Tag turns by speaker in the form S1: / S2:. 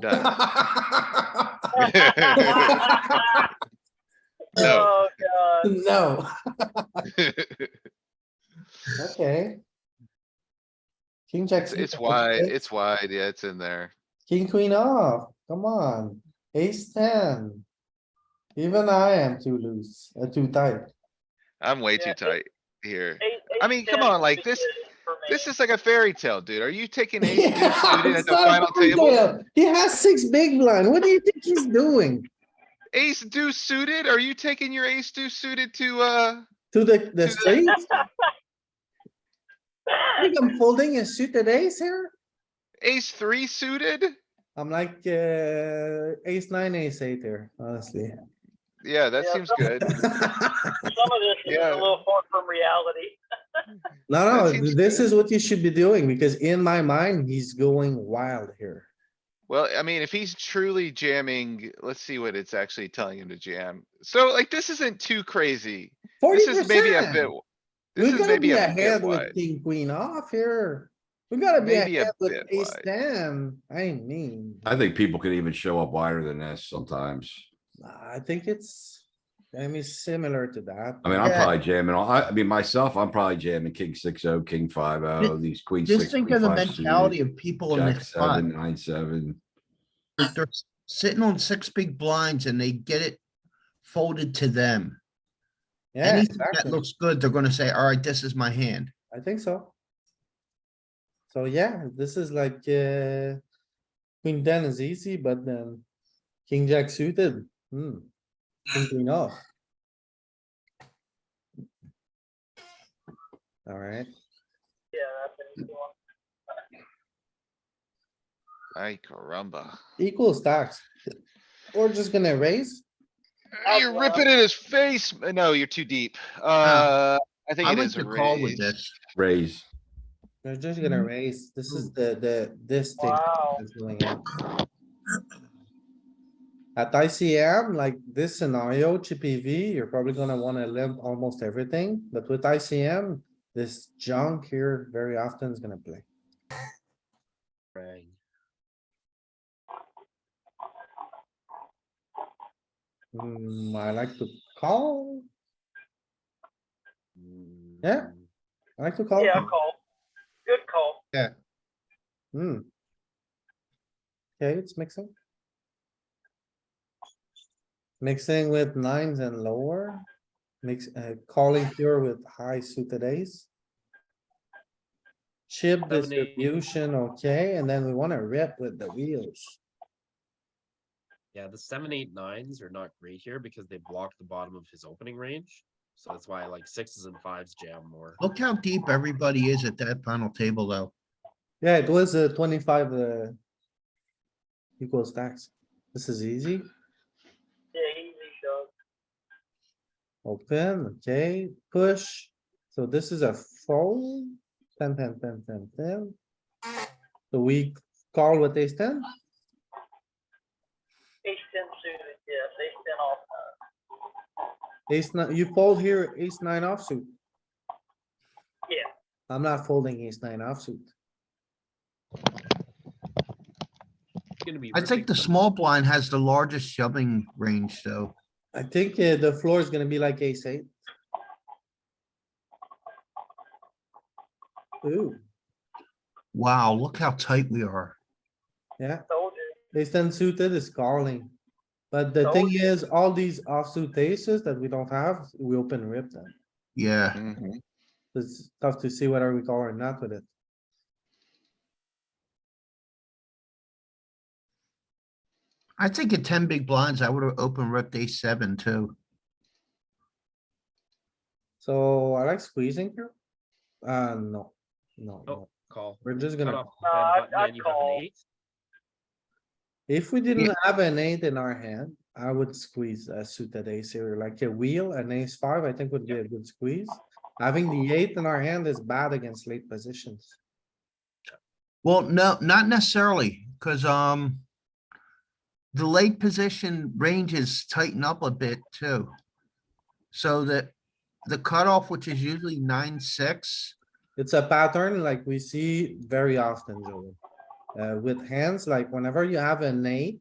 S1: done. No,
S2: Oh, God.
S3: No, okay. King jack.
S1: it's
S3: suited,
S1: it's wide,
S3: okay.
S1: it's wide, yeah, it's in there.
S3: King queen off, come on, ace ten. Even I am too loose, uh, too tight.
S1: I'm way too
S2: Yeah, it-
S1: tight here.
S2: Eight-
S1: I
S2: eight
S1: mean, come
S2: ten
S1: on, like,
S2: is
S1: this-
S2: for me.
S1: This is like a fairy tale, dude. Are you taking ace deuce suited at
S3: It's
S1: the
S3: not
S1: final
S3: a fairy
S1: table?
S3: tale. He has six big blind, what do you think he's doing?
S1: Ace deuce suited? Are you taking your ace deuce suited to, uh?
S3: To the, the
S1: To the-
S3: street? I think I'm folding a suited ace here.
S1: Ace three suited?
S3: I'm like, uh, ace nine, ace eight there, honestly.
S1: Yeah, that
S2: Yeah.
S1: seems good.
S2: Some of this is
S1: Yeah.
S2: a little far from reality.
S3: No, no,
S1: seems
S3: this is what you should be doing because in my mind, he's going wild here.
S1: Well, I mean, if he's truly jamming, let's see what it's actually telling him to jam. So like, this isn't too crazy.
S3: Forty
S1: This is maybe a bit.
S3: percent.
S1: This
S3: We
S1: is
S3: gotta
S1: maybe
S3: be
S1: a bit
S3: ahead
S1: wide.
S3: with king, queen off here. We gotta be
S1: Maybe a
S3: ahead with
S1: bit
S3: ace
S1: wide.
S3: ten. I mean,
S4: I think people could even show up wider than this sometimes.
S3: I think it's, I mean, similar to that.
S4: I mean, I'm
S3: Yeah,
S4: probably jamming, all- I, I mean, myself, I'm probably jamming king six oh, king five oh, these queen six.
S5: Just think of the
S4: queen five suited,
S5: mentality of people in
S4: Jack
S5: this spot.
S4: seven, nine, seven.
S5: They're s- sitting on six big blinds and they get it folded to them.
S3: Yeah,
S5: Anything that
S3: exactly.
S5: looks good, they're gonna say, all right, this is my hand.
S3: I think so. So yeah, this is like, uh, queen ten is easy, but then king jack suited, hmm. King queen off. Alright,
S2: Yeah, that's an easy one.
S1: Ay, caramba.
S3: equal stacks. We're just gonna raise.
S2: I'd
S1: You're
S2: love-
S1: ripping in his face. Uh, No, you're too deep. Uh, I think
S5: I
S1: it
S5: like
S1: is a
S5: to call with
S1: raise.
S5: this.
S4: Raise.
S3: We're just gonna raise. This is the, the, this thing.
S2: Wow.
S3: that's going on. At ICM, like this scenario, Chippy V, you're probably gonna wanna limp almost everything, but with ICM, this junk here very often is gonna play. Hmm, I like to call. Yeah, I like to call.
S2: Yeah, call. Good call.
S3: Hmm. Okay, it's mixing. Mixing with nines and lower, mix, uh, calling here with high suited ace. Chip distribution, okay, and then we wanna rip with the wheels.
S6: Yeah, the seven, eight, nines are not great here because they block the bottom of his opening range. So that's why like sixes and fives jam more.
S5: Look how deep everybody is at that final table, though.
S3: Yeah, it was uh twenty-five, uh. Equal stacks. This is easy.
S2: Yeah, easy shot.
S3: Open, okay, push. So this is a fold. Ten, ten, ten, ten, ten. So we call with ace ten,
S2: Ace ten suited, yes, ace ten off.
S3: ace nine, you fold here, ace nine offsuit.
S2: Yeah.
S3: I'm not folding ace nine offsuit.
S6: It's gonna be
S5: I think
S6: ripping
S5: the
S6: some-
S5: small blind has the largest shoving range, though.
S3: I think uh, the floor is gonna be like ace eight. Ooh,
S5: Wow, look how tight we are.
S3: yeah,
S2: Told you.
S3: ace ten suited is calling. But the thing is, all these offsuit aces that we don't have, we open rip them.
S5: Yeah,
S1: Mhm.
S3: It's tough to see whether we call or not with it.
S5: I think at ten big blinds, I would have opened rep day seven too.
S3: So I like squeezing here. Uh, no, no,
S6: Oh.
S3: no.
S6: Call.
S3: We're just
S6: Cut
S3: gonna,
S6: off
S2: Uh,
S6: the
S2: I'd-
S6: red button
S2: I'd
S6: and you have
S2: call.
S6: an eight.
S3: if we didn't have an eight in our hand, I would squeeze a suited ace here, like a wheel, an ace five, I think would be a good squeeze. Having the eight in our hand is bad against late positions.
S5: Well, no, not necessarily, because, um, the late position ranges tighten up a bit too. So that the cutoff, which is usually nine, six,
S3: It's a pattern like we see very often, Joey. uh, with hands, like whenever you have an eight,